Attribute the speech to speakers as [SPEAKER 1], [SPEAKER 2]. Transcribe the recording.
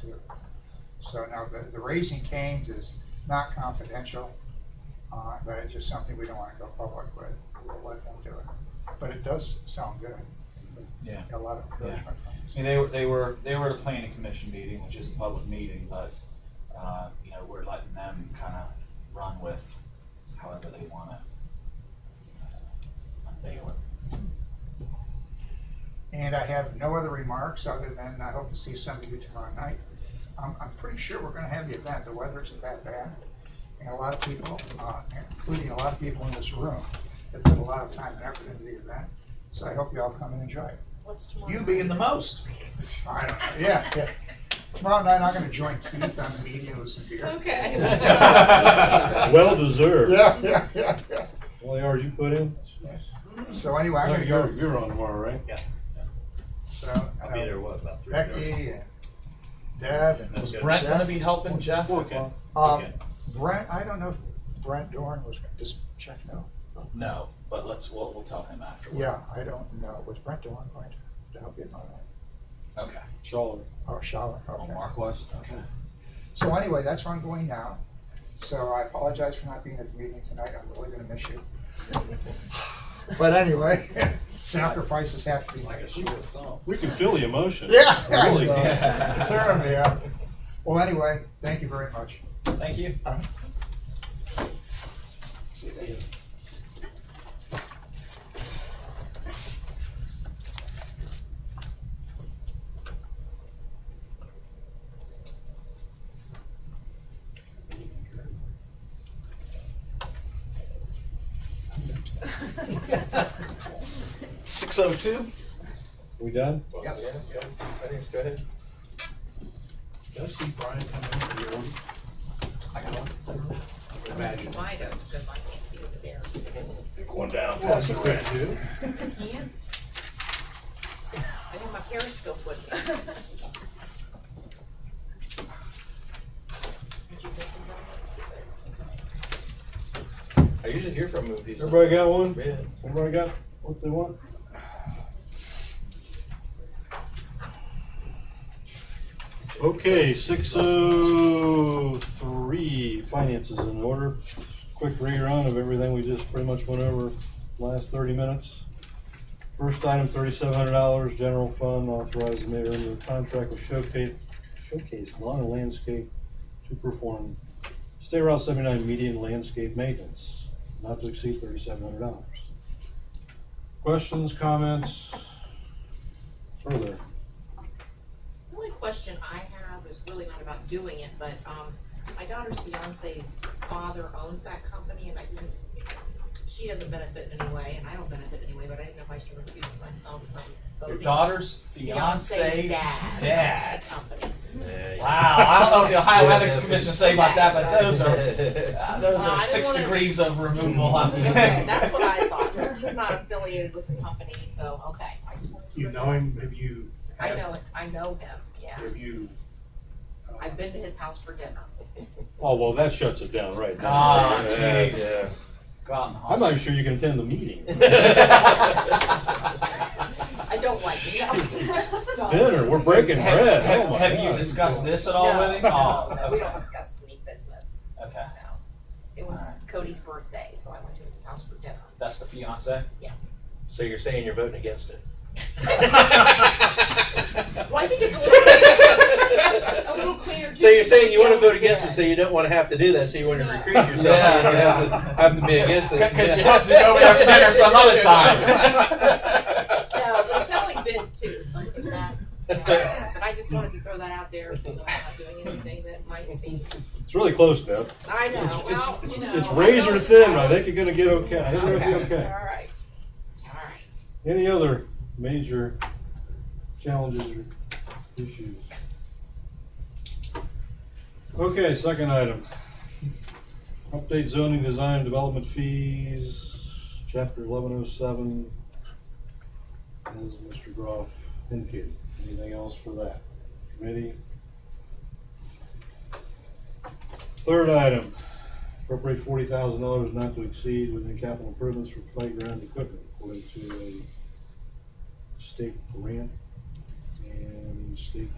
[SPEAKER 1] too. So no, the, the raising canes is not confidential, uh, but it's just something we don't wanna go public with, we'll let them do it. But it does sound good.
[SPEAKER 2] Yeah.
[SPEAKER 1] A lot of encouragement from us.
[SPEAKER 2] I mean, they were, they were, they were at a planning commission meeting, which is a public meeting, but, uh, you know, we're letting them kinda run with however they wanna. uh, unveil it.
[SPEAKER 1] And I have no other remarks other than I hope to see some of you tomorrow night. I'm, I'm pretty sure we're gonna have the event, the weather isn't that bad. And a lot of people, uh, including a lot of people in this room, have put a lot of time and effort into the event. So I hope you all come and enjoy it.
[SPEAKER 3] What's tomorrow?
[SPEAKER 4] You being the most.
[SPEAKER 1] I don't know, yeah, yeah. Tomorrow night, I'm gonna join Keith on the media with some beer.
[SPEAKER 3] Okay.
[SPEAKER 5] Well deserved.
[SPEAKER 1] Yeah, yeah, yeah, yeah.
[SPEAKER 5] All the hours you put in?
[SPEAKER 1] So anyway, I'm
[SPEAKER 5] No,
[SPEAKER 1] gonna
[SPEAKER 5] You're,
[SPEAKER 1] go,
[SPEAKER 5] you're on tomorrow, right?
[SPEAKER 1] so,
[SPEAKER 6] I'll
[SPEAKER 1] you
[SPEAKER 6] be
[SPEAKER 1] know,
[SPEAKER 6] there, what, about three?
[SPEAKER 1] Becky and Deb and.
[SPEAKER 2] Was Brent gonna be helping Jeff?
[SPEAKER 6] Okay.
[SPEAKER 1] Um,
[SPEAKER 6] Okay.
[SPEAKER 1] Brent, I don't know if Brent Dorn was, does Jeff know?
[SPEAKER 2] No, but let's, we'll, we'll tell him afterward.
[SPEAKER 1] Yeah, I don't know. Was Brent Dorn going to, to help you on that?
[SPEAKER 2] Okay.
[SPEAKER 5] Charlotte.
[SPEAKER 1] Oh, Charlotte,
[SPEAKER 2] Oh,
[SPEAKER 1] okay.
[SPEAKER 2] Mark was, okay.
[SPEAKER 1] So anyway, that's where I'm going now. So I apologize for not being at the meeting tonight. I'm really gonna miss you. But anyway, sacrifices have to be
[SPEAKER 2] Like a
[SPEAKER 1] made.
[SPEAKER 2] short film.
[SPEAKER 5] We can feel the emotion.
[SPEAKER 1] Yeah.
[SPEAKER 5] Really.
[SPEAKER 1] Fair, yeah. Well, anyway, thank you very much.
[SPEAKER 2] Thank you.
[SPEAKER 1] Uh,
[SPEAKER 2] See you.
[SPEAKER 4] Six oh two.
[SPEAKER 5] We done?
[SPEAKER 6] Yeah, yeah, yeah, I think it's go ahead. Did I see Brian come in for your own? I got one. Imagine.
[SPEAKER 3] Why don't, because I can't see over there.
[SPEAKER 5] Pick one down.
[SPEAKER 3] Can? I need my periscope with me. Did you get them done?
[SPEAKER 6] I usually hear from movies.
[SPEAKER 5] Everybody got one?
[SPEAKER 6] Yeah.
[SPEAKER 5] Everybody got what they want? Okay, six oh three, finances in order. Quick rerun of everything we just pretty much went over last thirty minutes. First item, thirty-seven hundred dollars, general fund, authorize the mayor under contract with Showcase, Showcase Lawn and Landscape to perform State Route seventy-nine median landscape maintenance, not to exceed thirty-seven hundred dollars. Questions, comments? Further,
[SPEAKER 3] The only question I have is really not about doing it, but, um, my daughter's fiance's father owns that company and I didn't, she doesn't benefit in any way and I don't benefit in any way, but I didn't know if I should recuse myself
[SPEAKER 2] Your
[SPEAKER 3] from voting.
[SPEAKER 2] daughter's
[SPEAKER 3] Fiance's
[SPEAKER 2] fiance's
[SPEAKER 3] dad.
[SPEAKER 2] dad.
[SPEAKER 3] That company.
[SPEAKER 2] Wow, I don't know what the Ohio Ethics Commission say about that, but those are, uh, those
[SPEAKER 3] Well, I
[SPEAKER 2] are
[SPEAKER 3] didn't
[SPEAKER 2] six
[SPEAKER 3] wanna-
[SPEAKER 2] degrees of removal, I'm
[SPEAKER 3] Okay,
[SPEAKER 2] saying.
[SPEAKER 3] that's what I thought, because he's not affiliated with the company, so, okay. I just wanted to-
[SPEAKER 7] You know him, have you?
[SPEAKER 3] I know it, I know him, yeah.
[SPEAKER 7] Have you? uh,
[SPEAKER 3] I've been to his house for dinner.
[SPEAKER 5] oh, well, that shuts it down right now.
[SPEAKER 2] Ah,
[SPEAKER 6] Yeah,
[SPEAKER 2] jeez.
[SPEAKER 6] yeah.
[SPEAKER 2] God,
[SPEAKER 5] I'm not even sure you can attend the meeting.
[SPEAKER 3] I don't like it, no.
[SPEAKER 5] Dinner, we're breaking bread, oh
[SPEAKER 2] Have,
[SPEAKER 5] my
[SPEAKER 2] have you
[SPEAKER 5] God.
[SPEAKER 2] discussed this at all
[SPEAKER 3] No,
[SPEAKER 2] with him?
[SPEAKER 3] no,
[SPEAKER 2] Oh,
[SPEAKER 3] no, we
[SPEAKER 2] okay.
[SPEAKER 3] don't discuss any business,
[SPEAKER 2] Okay,
[SPEAKER 3] no. It was
[SPEAKER 2] Alright.
[SPEAKER 3] Cody's birthday, so I went to his house for dinner.
[SPEAKER 2] that's the fiance.
[SPEAKER 6] So you're saying you're voting against it?
[SPEAKER 3] Well, I think it's a little, a little cleaner.
[SPEAKER 6] So you're saying you wanna vote against it, so you don't wanna have to do that, so you wanna
[SPEAKER 3] Yeah.
[SPEAKER 6] recruit yourself, so you don't
[SPEAKER 2] Yeah.
[SPEAKER 6] have to, have to be against it.
[SPEAKER 2] Because you have to go there for dinner some other time.
[SPEAKER 3] No, but it's only been two, so I think that, yeah. but I just wanted to throw that out there, so that I'm not doing anything that might seem,
[SPEAKER 5] It's really close, Deb.
[SPEAKER 3] I know,
[SPEAKER 5] It's-
[SPEAKER 3] well, you know.
[SPEAKER 5] It's
[SPEAKER 3] I
[SPEAKER 5] razor
[SPEAKER 3] know
[SPEAKER 5] thin,
[SPEAKER 3] it's-
[SPEAKER 5] I think you're gonna get okay, I think we're
[SPEAKER 3] Okay,
[SPEAKER 5] gonna be okay.
[SPEAKER 3] alright, alright.
[SPEAKER 5] Any other major challenges or issues? Okay, second item. Update zoning design development fees, chapter eleven oh seven. As Mr. Groff indicated, anything else for that committee? Third item, appropriate forty thousand dollars not to exceed within capital improvements for playground equipment according to a state grant and state